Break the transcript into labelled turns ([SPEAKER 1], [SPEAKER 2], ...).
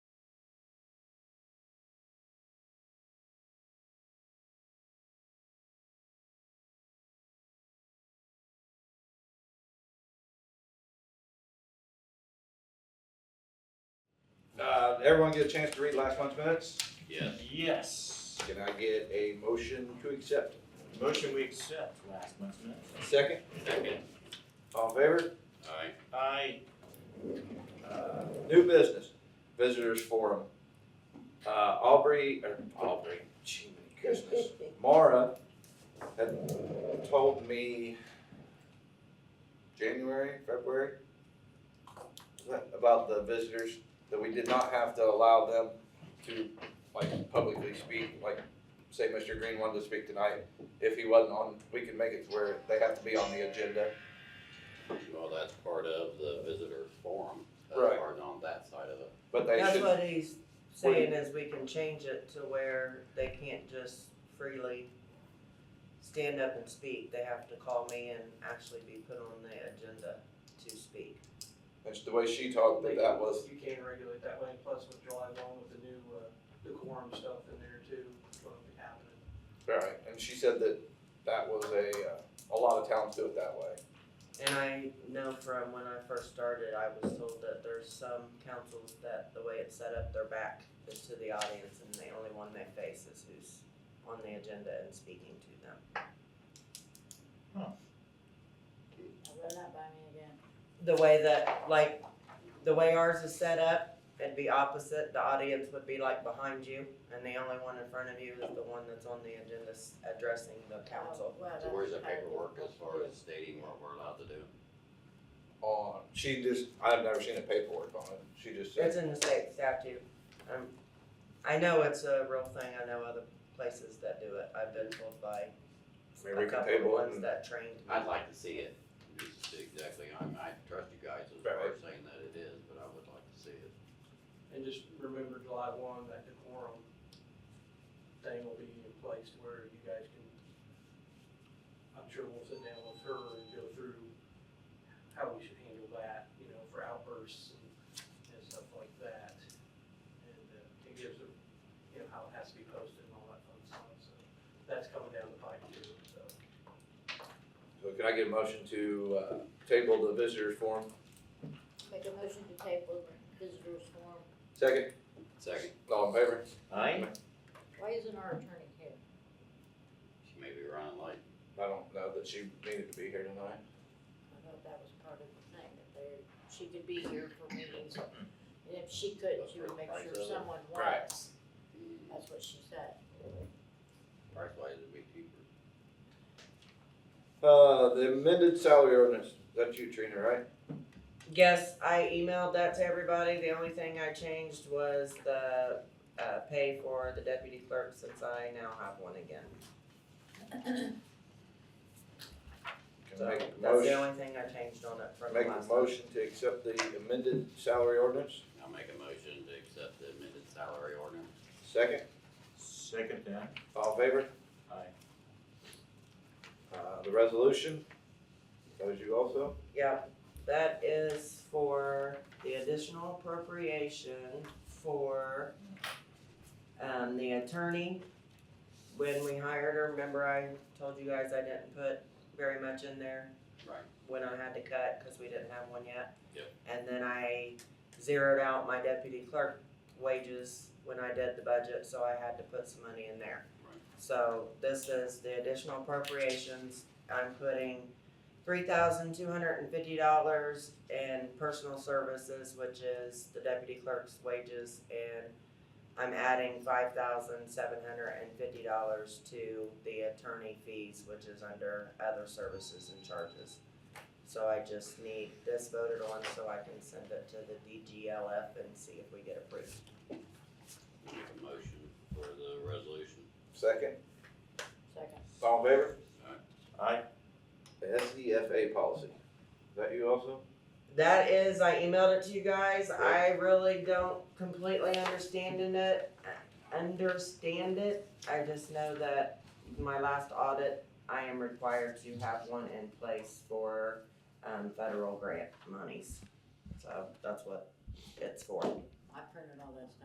[SPEAKER 1] Uh, everyone get a chance to read last month's minutes?
[SPEAKER 2] Yes.
[SPEAKER 3] Yes.
[SPEAKER 1] Can I get a motion to accept?
[SPEAKER 3] Motion we accept last month's minutes.
[SPEAKER 1] Second,
[SPEAKER 2] Second.
[SPEAKER 1] all in favor?
[SPEAKER 2] Aye.
[SPEAKER 3] I,
[SPEAKER 1] Uh, New business, visitors forum. Uh, Aubrey, or Aubrey, gee, my goodness. Mara had told me January, February, about the visitors, that we did not have to allow them to like publicly speak, like say Mr. Green wanted to speak tonight. If he wasn't on, we could make it to where they have to be on the agenda.
[SPEAKER 2] Well, that's part of the visitor forum. That's
[SPEAKER 1] Right.
[SPEAKER 2] part on that side of it.
[SPEAKER 1] But they
[SPEAKER 4] That's
[SPEAKER 1] should,
[SPEAKER 4] what he's saying is we can change it to where they can't just freely stand up and speak. They have to call me and actually be put on the agenda to speak.
[SPEAKER 1] that's the way she talked, that that was,
[SPEAKER 5] You can regulate that way, plus with July one, with the new, uh, the quorum stuff in there too, what'll be happening.
[SPEAKER 1] right, and she said that that was a, uh, a lot of towns do it that way.
[SPEAKER 4] And I know from when I first started, I was told that there's some councils that the way it's set up, their back is to the audience and the only one they face is who's on the agenda and speaking to them.
[SPEAKER 6] Run that by me again.
[SPEAKER 4] the way that like the way ours is set up it'd be opposite the audience would be like behind you and the only one in front of you is the one that's on the agenda s- addressing the council
[SPEAKER 6] Well,
[SPEAKER 2] So where's the
[SPEAKER 6] that's-
[SPEAKER 2] paperwork as far as stating what we're allowed to do?
[SPEAKER 1] on, she just, I've never seen the paperwork on it, she just
[SPEAKER 4] it's
[SPEAKER 1] said,
[SPEAKER 4] in the state statute um, i know it's a real thing i know other places that do it i've been told by
[SPEAKER 1] Maybe we
[SPEAKER 4] a
[SPEAKER 1] can
[SPEAKER 4] couple of
[SPEAKER 1] table it
[SPEAKER 4] ones
[SPEAKER 1] and-
[SPEAKER 4] that trained me
[SPEAKER 2] I'd like to see it, just to see exactly, I, I trust you guys as far as saying that it is, but I would like to see it.
[SPEAKER 5] And just remember July one, that the quorum thing will be in place to where you guys can, I'm sure we'll sit down with her and go through how we should handle that, you know, for outbursts and, and stuff like that. And, uh, it gives, a- you know, how it has to be posted and all that fun stuff, so that's coming down the pipe too, so.
[SPEAKER 1] so can I get a motion to, uh, table the visitors forum?
[SPEAKER 6] Make a motion to table the visitors form.
[SPEAKER 1] Second,
[SPEAKER 2] Second,
[SPEAKER 1] all in favor?
[SPEAKER 3] I,
[SPEAKER 6] Why isn't our attorney here?
[SPEAKER 2] she may be running late.
[SPEAKER 1] I don't know that she needed to be here tonight.
[SPEAKER 6] I thought that was part of the thing, that there, she could be here for meetings. And if she couldn't, she would make sure someone
[SPEAKER 1] Right.
[SPEAKER 6] was. That's what she said.
[SPEAKER 2] mm, Price wise, it'd be cheaper.
[SPEAKER 1] Uh, the amended salary ordinance, that's you Trina, right?
[SPEAKER 4] Yes, I emailed that to everybody. The only thing I changed was the uh, pay for the deputy clerk since I now have one again.
[SPEAKER 1] Can
[SPEAKER 4] So
[SPEAKER 1] I make a
[SPEAKER 4] that's the
[SPEAKER 1] motion,
[SPEAKER 4] only thing I changed on it from the
[SPEAKER 1] make a
[SPEAKER 4] last time.
[SPEAKER 1] motion to accept the amended salary ordinance?
[SPEAKER 2] I'll make a motion to accept the amended salary ordinance.
[SPEAKER 1] Second,
[SPEAKER 3] second that.
[SPEAKER 1] all in favor?
[SPEAKER 3] I,
[SPEAKER 1] Uh, the resolution, that was you also?
[SPEAKER 4] Yeah, that is for the additional appropriation for um, the attorney. When we hired her, remember I told you guys I didn't put very much in there?
[SPEAKER 2] Right.
[SPEAKER 4] When I had to cut, cause we didn't have one yet.
[SPEAKER 2] Yep.
[SPEAKER 4] And then I zeroed out my deputy clerk wages when I did the budget, so I had to put some money in there.
[SPEAKER 2] Right.
[SPEAKER 4] So this is the additional appropriations, I'm putting three thousand two hundred and fifty dollars in personal services, which is the deputy clerk's wages, and I'm adding five thousand seven hundred and fifty dollars to the attorney fees, which is under other services and charges. So I just need this voted on so I can send it to the DGLF and see if we get approved.
[SPEAKER 2] I'll Make a motion for the resolution.
[SPEAKER 1] Second,
[SPEAKER 6] Second.
[SPEAKER 1] all in favor?
[SPEAKER 3] I,
[SPEAKER 1] The SDFA policy, is that you also?
[SPEAKER 4] That is, I emailed it to you guys. I really don't completely understand in it, understand it. I just know that my last audit, I am required to have one in place for, um, federal grant monies. So that's what it's for.
[SPEAKER 6] I printed all that stuff